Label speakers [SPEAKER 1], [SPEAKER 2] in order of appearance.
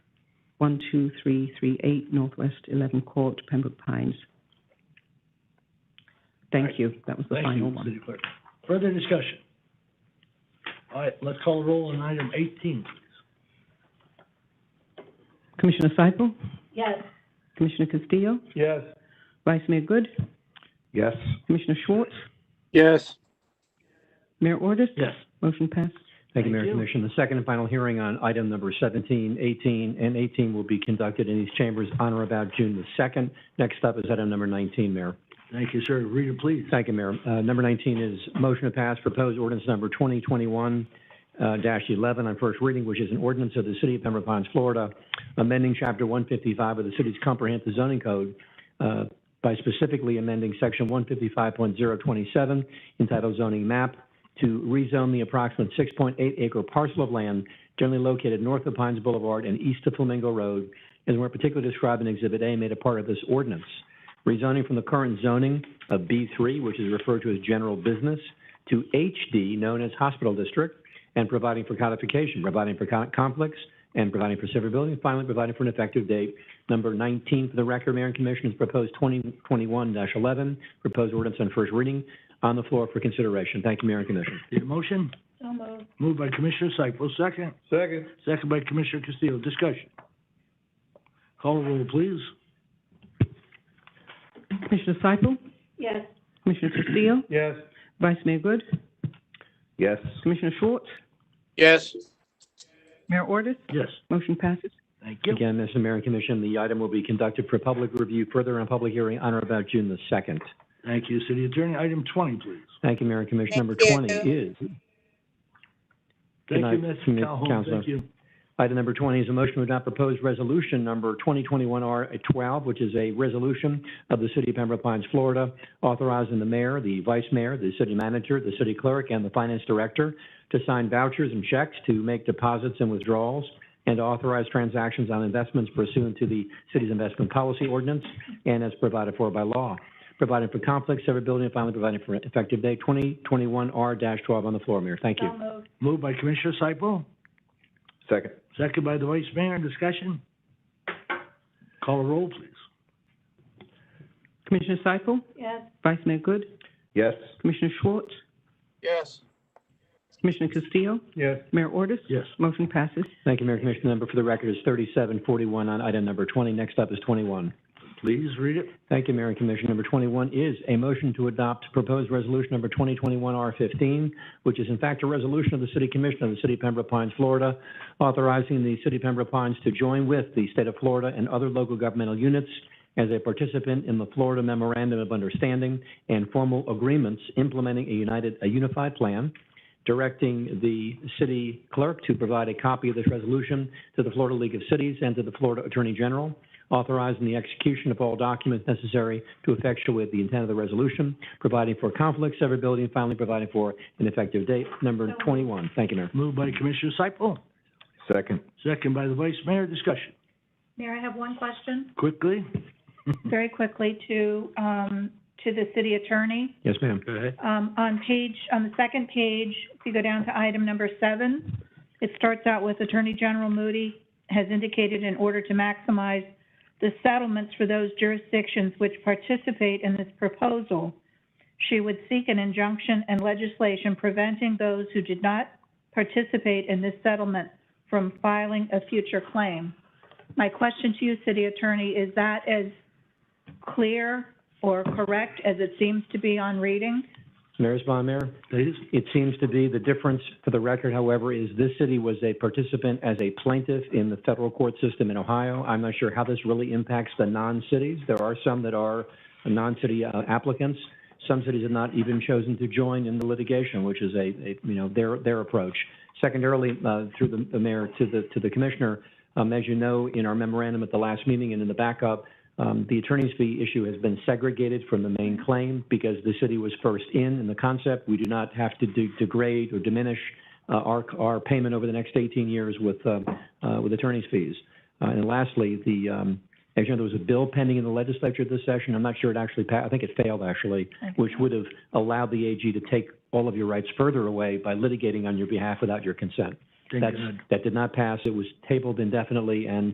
[SPEAKER 1] 12338 Northwest 11 Court, Pembroke Pines. Thank you. That was the
[SPEAKER 2] Thank
[SPEAKER 1] final
[SPEAKER 2] you,
[SPEAKER 1] one.
[SPEAKER 2] City Clerk. Further discussion? All right, let's call a roll on item eighteen, please.
[SPEAKER 1] Commissioner Seipel,
[SPEAKER 3] yes,
[SPEAKER 1] Commissioner Castillo,
[SPEAKER 2] Yes.
[SPEAKER 1] Vice Mayor Good,
[SPEAKER 4] Yes.
[SPEAKER 1] Commissioner Schwartz,
[SPEAKER 5] yes,
[SPEAKER 1] Mayor Ordus.
[SPEAKER 2] Yes.
[SPEAKER 1] Motion passed.
[SPEAKER 6] Thank
[SPEAKER 2] Thank
[SPEAKER 6] you, Mayor and
[SPEAKER 2] you.
[SPEAKER 6] Commissioner. The second and final hearing on item number 17, 18, and 18 will be conducted in these chambers on or about June the 2nd. Next up is item number 19, Mayor.
[SPEAKER 2] Thank you, sir. Reader, please.
[SPEAKER 6] Thank you, Mayor. Uh, Number 19 is motion to pass proposed ordinance number 2021-11 on first reading, which is an ordinance of the City of Pembroke Pines, Florida, amending Chapter 155 of the city's comprehensive zoning code uh, by specifically amending Section 155.027 entitled zoning map to rezone the approximate 6.8 acre parcel of land generally located north of Pines Boulevard and east of Flamingo Road, as more particularly described in Exhibit A made a part of this ordinance rezoning from the current zoning of B3, which is referred to as general business, to HD, known as hospital district, and providing for codification, providing for con- conflicts, and providing for severability, and finally, providing for an effective date. Number 19 for the record, Mayor and Commissioners, proposed 2021-11, proposed ordinance on first reading, on the floor for consideration. Thank you, Mayor and Commissioner.
[SPEAKER 2] Need a motion?
[SPEAKER 3] so moved,
[SPEAKER 2] Moved by Commissioner Cyple, second.
[SPEAKER 4] Second.
[SPEAKER 2] Second by Commissioner Castillo. Discussion. Call a roll, please.
[SPEAKER 1] Commissioner Seipel,
[SPEAKER 3] yes,
[SPEAKER 1] Commissioner Castillo,
[SPEAKER 4] Yes.
[SPEAKER 1] Vice Mayor Good,
[SPEAKER 4] Yes.
[SPEAKER 1] Commissioner Schwartz,
[SPEAKER 5] yes,
[SPEAKER 1] Mayor Ordus.
[SPEAKER 2] Yes.
[SPEAKER 1] Motion passes.
[SPEAKER 2] Thank you.
[SPEAKER 6] Again, Mr. Mayor and Commission, the item will be conducted for public review further on public hearing on or about June the 2nd.
[SPEAKER 2] Thank you, City Attorney. Item twenty, please.
[SPEAKER 6] Thank you, Mayor and Commissioner. Number
[SPEAKER 5] Thank
[SPEAKER 6] 20 is Good
[SPEAKER 2] Thank you,
[SPEAKER 6] night,
[SPEAKER 2] Ms.
[SPEAKER 6] Commi-
[SPEAKER 2] Calhoun.
[SPEAKER 6] Counselor.
[SPEAKER 2] Thank you.
[SPEAKER 6] Item number 20 is a motion to adopt proposed resolution number 2021-R12, which is a resolution of the City of Pembroke Pines, Florida, authorizing the mayor, the vice mayor, the city manager, the city clerk, and the finance director to sign vouchers and checks to make deposits and withdrawals and authorize transactions on investments pursuant to the city's investment policy ordinance and as provided for by law, providing for conflicts, severability, and finally providing for an effective date, 2021-R12 on the floor, Mayor. Thank you.
[SPEAKER 3] so moved,
[SPEAKER 2] Moved by Commissioner Cyple,
[SPEAKER 4] Second.
[SPEAKER 2] second by the Vice Mayor. Discussion. Call a roll, please.
[SPEAKER 1] Commissioner Seipel,
[SPEAKER 3] yes,
[SPEAKER 1] Vice Mayor Good,
[SPEAKER 4] Yes.
[SPEAKER 1] Commissioner Schwartz,
[SPEAKER 5] yes,
[SPEAKER 1] Commissioner Castillo,
[SPEAKER 4] Yes.
[SPEAKER 1] Mayor Ordus.
[SPEAKER 2] Yes.
[SPEAKER 1] Motion passes.
[SPEAKER 6] Thank you, Mayor and Commissioner. The Number for the record is 3741 on item number 20. Next up is 21.
[SPEAKER 2] Please read it.
[SPEAKER 6] Thank you, Mayor and Commissioner. Number 21 is a motion to adopt proposed resolution number 2021-R15, which is in fact a resolution of the City Commission of the City of Pembroke Pines, Florida, authorizing the City of Pembroke Pines to join with the State of Florida and other local governmental units as a participant in the Florida Memorandum of Understanding and formal agreements implementing a united, a unified plan, directing the city clerk to provide a copy of this resolution to the Florida League of Cities and to the Florida Attorney General, authorizing the execution of all documents necessary to effectuate the intent of the resolution, providing for conflict severability, and finally providing for an effective date. Number 21. Thank you, Mayor.
[SPEAKER 2] Moved by Commissioner Cyple,
[SPEAKER 4] Second.
[SPEAKER 2] second by the Vice Mayor. Discussion.
[SPEAKER 3] Mayor, I have one question,
[SPEAKER 2] Quickly.
[SPEAKER 3] very quickly to, um, to the city attorney.
[SPEAKER 6] Yes, ma'am.
[SPEAKER 2] Go ahead.
[SPEAKER 3] Um, on page, on the second page, if you go down to item number seven, it starts out with Attorney General Moody has indicated in order to maximize the settlements for those jurisdictions which participate in this proposal, she would seek an injunction and legislation preventing those who did not participate in this settlement from filing a future claim. My question to you, City Attorney, is that as clear or correct as it seems to be on reading?
[SPEAKER 6] Mayor's bond, Mayor?
[SPEAKER 2] Please.
[SPEAKER 6] It seems to be the difference for the record, however, is this city was a participant as a plaintiff in the federal court system in Ohio. I'm not sure how this really impacts the non-cities. There are some that are non-city uh, applicants. Some cities have not even chosen to join in the litigation, which is a, a, you know, their, their approach. Secondarily, uh, through the- the mayor to the, to the commissioner, um, as you know, in our memorandum at the last meeting and in the backup, um, the attorney's fee issue has been segregated from the main claim because the city was first in in the concept. We do not have to de- degrade or diminish uh, our our payment over the next 18 years with um, uh, with attorney's fees. Uh, and lastly, the um, as you know, there was a bill pending in the legislature this session. I'm not sure it actually passed. I think it failed actually, which would have allowed the AG to take all of your rights further away by litigating on your behalf without your consent.
[SPEAKER 2] Thank
[SPEAKER 6] That's,
[SPEAKER 2] God.
[SPEAKER 6] that did not pass. It was tabled indefinitely, and